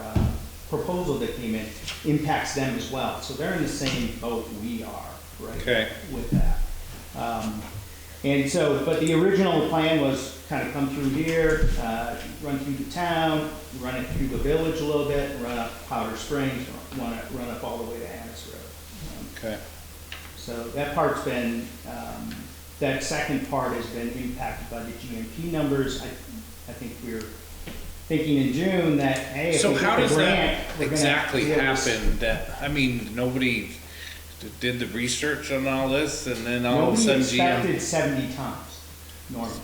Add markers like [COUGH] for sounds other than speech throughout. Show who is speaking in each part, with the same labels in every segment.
Speaker 1: uh, proposal that came in impacts them as well. So they're in the same boat we are, right?
Speaker 2: Okay.
Speaker 1: With that. Um, And so, but the original plan was kind of come through here, uh, run through the town, run it through the village a little bit, run up Powder Springs, run it, run up all the way to Annis Road. Um,
Speaker 2: Okay.
Speaker 1: so that part's been, um, that second part has been impacted by the GMP numbers. I, I think we we're thinking in June that, hey, if
Speaker 2: So
Speaker 1: we get
Speaker 2: how
Speaker 1: the
Speaker 2: does
Speaker 1: grant.
Speaker 2: that
Speaker 1: we're gonna-
Speaker 2: exactly
Speaker 1: we're gonna-
Speaker 2: happen that, I mean, nobody d- did the research on all this and then all of a
Speaker 1: Nobody
Speaker 2: sudden GM?
Speaker 1: expected seventy tons normally.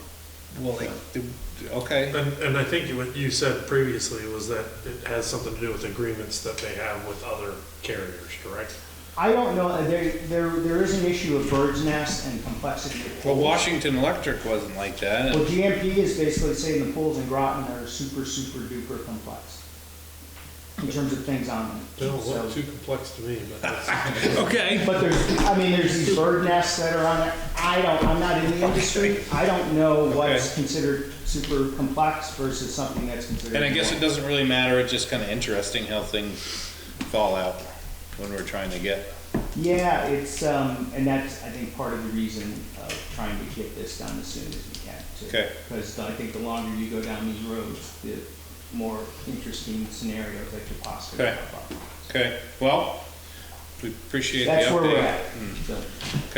Speaker 2: Well, like, d- d- okay,
Speaker 3: And, and I think what you said previously was that it has something to do with agreements that they have with other carriers, correct?
Speaker 1: I don't know, uh, there, there, there is an issue of bird's nest and complexity. of
Speaker 2: well,
Speaker 1: pools.
Speaker 2: Washington Electric wasn't like that.
Speaker 1: Well, GMP is basically saying the pools in Groton are super, super duper complex in terms of things on them.
Speaker 3: They don't
Speaker 1: So-
Speaker 3: look too complex to me, but that's-
Speaker 2: [LAUGHS] Okay.
Speaker 1: But there's, I mean, there's these bird nests that are on it. I don't, I'm not in the industry. I don't know what's
Speaker 2: Okay.
Speaker 1: considered super complex versus something that's considered.
Speaker 2: And I guess it doesn't really matter, it's just kinda interesting how things fall out when we're trying to get.
Speaker 1: Yeah, it's, um, and that's, I think, part of the reason of trying to get this done as soon as we can. too.
Speaker 2: Okay.
Speaker 1: Because I think the longer you go down these roads, the more interesting scenarios that could possibly
Speaker 2: Okay.
Speaker 1: pop up.
Speaker 2: Okay, well, we appreciate the update.
Speaker 1: That's where
Speaker 2: Hmm.
Speaker 1: we're at. So-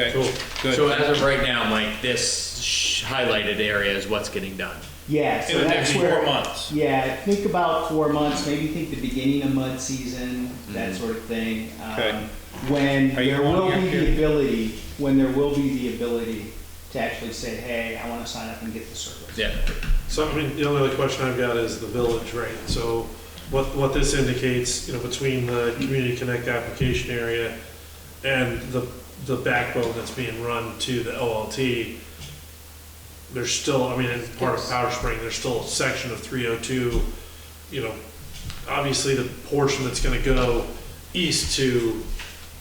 Speaker 2: Okay,
Speaker 3: Cool.
Speaker 4: So
Speaker 2: good.
Speaker 4: as of right now, Mike, this sh- highlighted area is what's getting done.
Speaker 1: Yeah, so
Speaker 2: In the
Speaker 1: that's
Speaker 2: next
Speaker 1: where.
Speaker 2: four months.
Speaker 1: Yeah, think about four months, maybe think the beginning of mud season, that sort of thing. um,
Speaker 2: Okay.
Speaker 1: When
Speaker 2: Are you
Speaker 1: there
Speaker 2: going
Speaker 1: will
Speaker 2: up
Speaker 1: be the
Speaker 2: here?
Speaker 1: ability, when there will be the ability to actually say, hey, I want to sign up and get the service.
Speaker 4: Yeah.
Speaker 3: So, I mean, the only other question I've got is the village, right? So what, what this indicates, you know, between the Community Connect application area and the, the backbone that's being run to the OLT, there's still, I mean, it's part of Powder Spring, there's still a section of 302, you know, obviously the portion that's gonna go east to,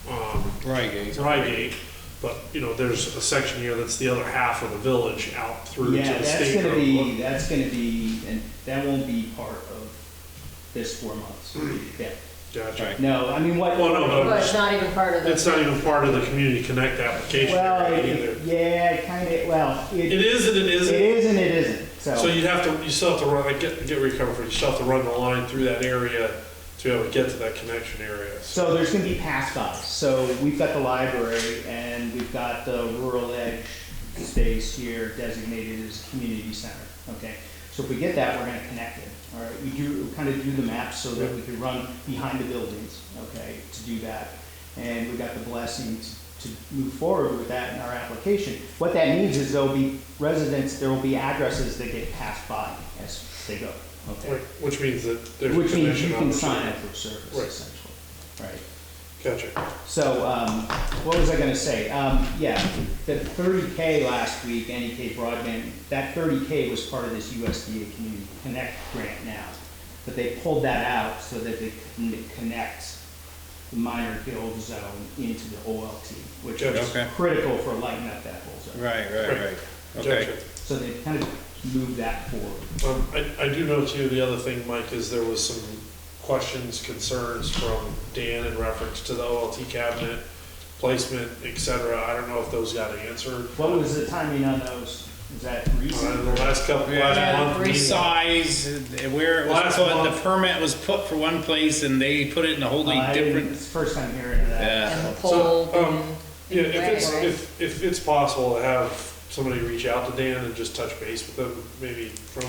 Speaker 3: um,
Speaker 2: Reigate.
Speaker 3: Reigate, but, you know, there's a section here that's the other half of the village out through to
Speaker 1: Yeah,
Speaker 3: the
Speaker 1: that's
Speaker 3: state.
Speaker 1: gonna
Speaker 3: road.
Speaker 1: be, that's gonna be, and that won't be part of this four months. Yeah,
Speaker 3: Gotcha.
Speaker 2: Right.
Speaker 1: no, I mean, what.
Speaker 3: Well, no, no,
Speaker 5: But it's not even part of the.
Speaker 3: It's not even part of the Community Connect application
Speaker 1: Well,
Speaker 3: area
Speaker 1: it-
Speaker 3: either.
Speaker 1: yeah, kind of, well,
Speaker 3: It
Speaker 1: it,
Speaker 3: is and it
Speaker 1: it
Speaker 3: isn't.
Speaker 1: is and it isn't,
Speaker 3: So you'd have to, you still have to run, like, get, get recovered, from it. you still have to run the line through that area to be able to get to that connection area.
Speaker 1: So there's gonna be pass bys, so we've got the library and we've got the rural edge space here designated as community center, okay? So if we get that, we're gonna connect it, all right, we do, kind of do the maps so that we can run behind the buildings, okay, to do that. And we got the blessing to, to move forward with that in our application. What that means is there'll be residents, there will be addresses that get passed by as they go, okay?
Speaker 3: Right, Which means that there's a
Speaker 1: Which means you
Speaker 3: connection
Speaker 1: can
Speaker 3: opportunity.
Speaker 1: sign up for service
Speaker 3: Right.
Speaker 1: essentially, right?
Speaker 3: Gotcha.
Speaker 1: So, um, what was I gonna say? Um, yeah, the thirty K last week, NEK broadband, that thirty K was part of this USDA Community Connect grant now. But they pulled that out so that they can connect the minor guild zone into the OLT, which is
Speaker 2: Okay.
Speaker 1: critical for lighting up that whole zone.
Speaker 2: Right, right, right. Okay.
Speaker 3: Gotcha.
Speaker 1: So they kind of moved that forward.
Speaker 3: Um, I, I do know too, the other thing, Mike, is there was some questions, concerns from Dan in reference to the OLT cabinet placement, et cetera. I don't know if those got answered.
Speaker 1: What was the timing on those? Is that
Speaker 3: Uh,
Speaker 1: recent?
Speaker 3: the last couple,
Speaker 2: Yeah,
Speaker 3: last month.
Speaker 2: The
Speaker 3: meeting-
Speaker 2: size, uh, where it was
Speaker 3: Last
Speaker 2: put, the
Speaker 3: month.
Speaker 2: permit was put for one place and they put it in a wholly
Speaker 1: I didn't-
Speaker 2: different.
Speaker 1: It's the first time hearing of that.
Speaker 2: Yeah.
Speaker 5: And the pole.
Speaker 3: So, um,
Speaker 5: and-
Speaker 3: Yeah, if it's,
Speaker 5: Right.
Speaker 3: if, if it's possible to have somebody reach out to Dan and just touch base with them, maybe from,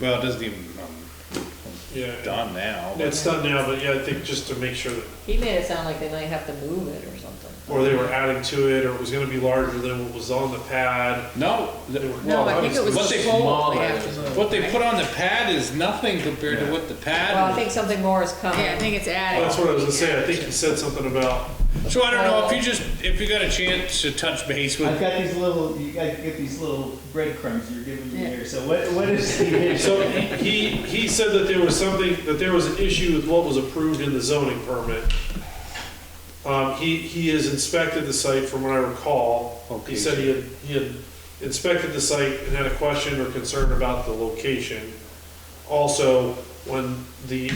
Speaker 2: Well, it doesn't even, um,
Speaker 3: yeah.
Speaker 2: done now. but-
Speaker 3: It's done now, but yeah, I think just to make sure that,
Speaker 5: He made it sound like they might have to move it or something.
Speaker 3: or they were adding to it, or it was gonna be larger than what was on the pad.
Speaker 2: No,
Speaker 3: They
Speaker 2: th-
Speaker 3: were-
Speaker 5: No, I think it was
Speaker 2: What
Speaker 5: a
Speaker 2: they-
Speaker 5: pole. they have to move,
Speaker 2: what they
Speaker 5: right?
Speaker 2: put on the pad is nothing compared to
Speaker 3: Yeah.
Speaker 2: what the
Speaker 5: Well, I
Speaker 2: pad.
Speaker 5: think something more is coming.
Speaker 6: Yeah, I think it's added.
Speaker 3: That's what I was gonna say, I think you said something about,
Speaker 2: So I don't know, if you just, if you got a chance to touch base
Speaker 1: I've
Speaker 2: with,
Speaker 1: got these little, you guys get these little breadcrumbs you're giving me
Speaker 5: Yeah.
Speaker 1: here, so what, what is the issue?
Speaker 3: so he, he said that there was something, that there was an issue with what was approved in the zoning permit. Um, he, he has inspected the site from what I recall.
Speaker 2: Okay.
Speaker 3: He said he had, he had inspected the site and had a question or concern about the location. Also, when the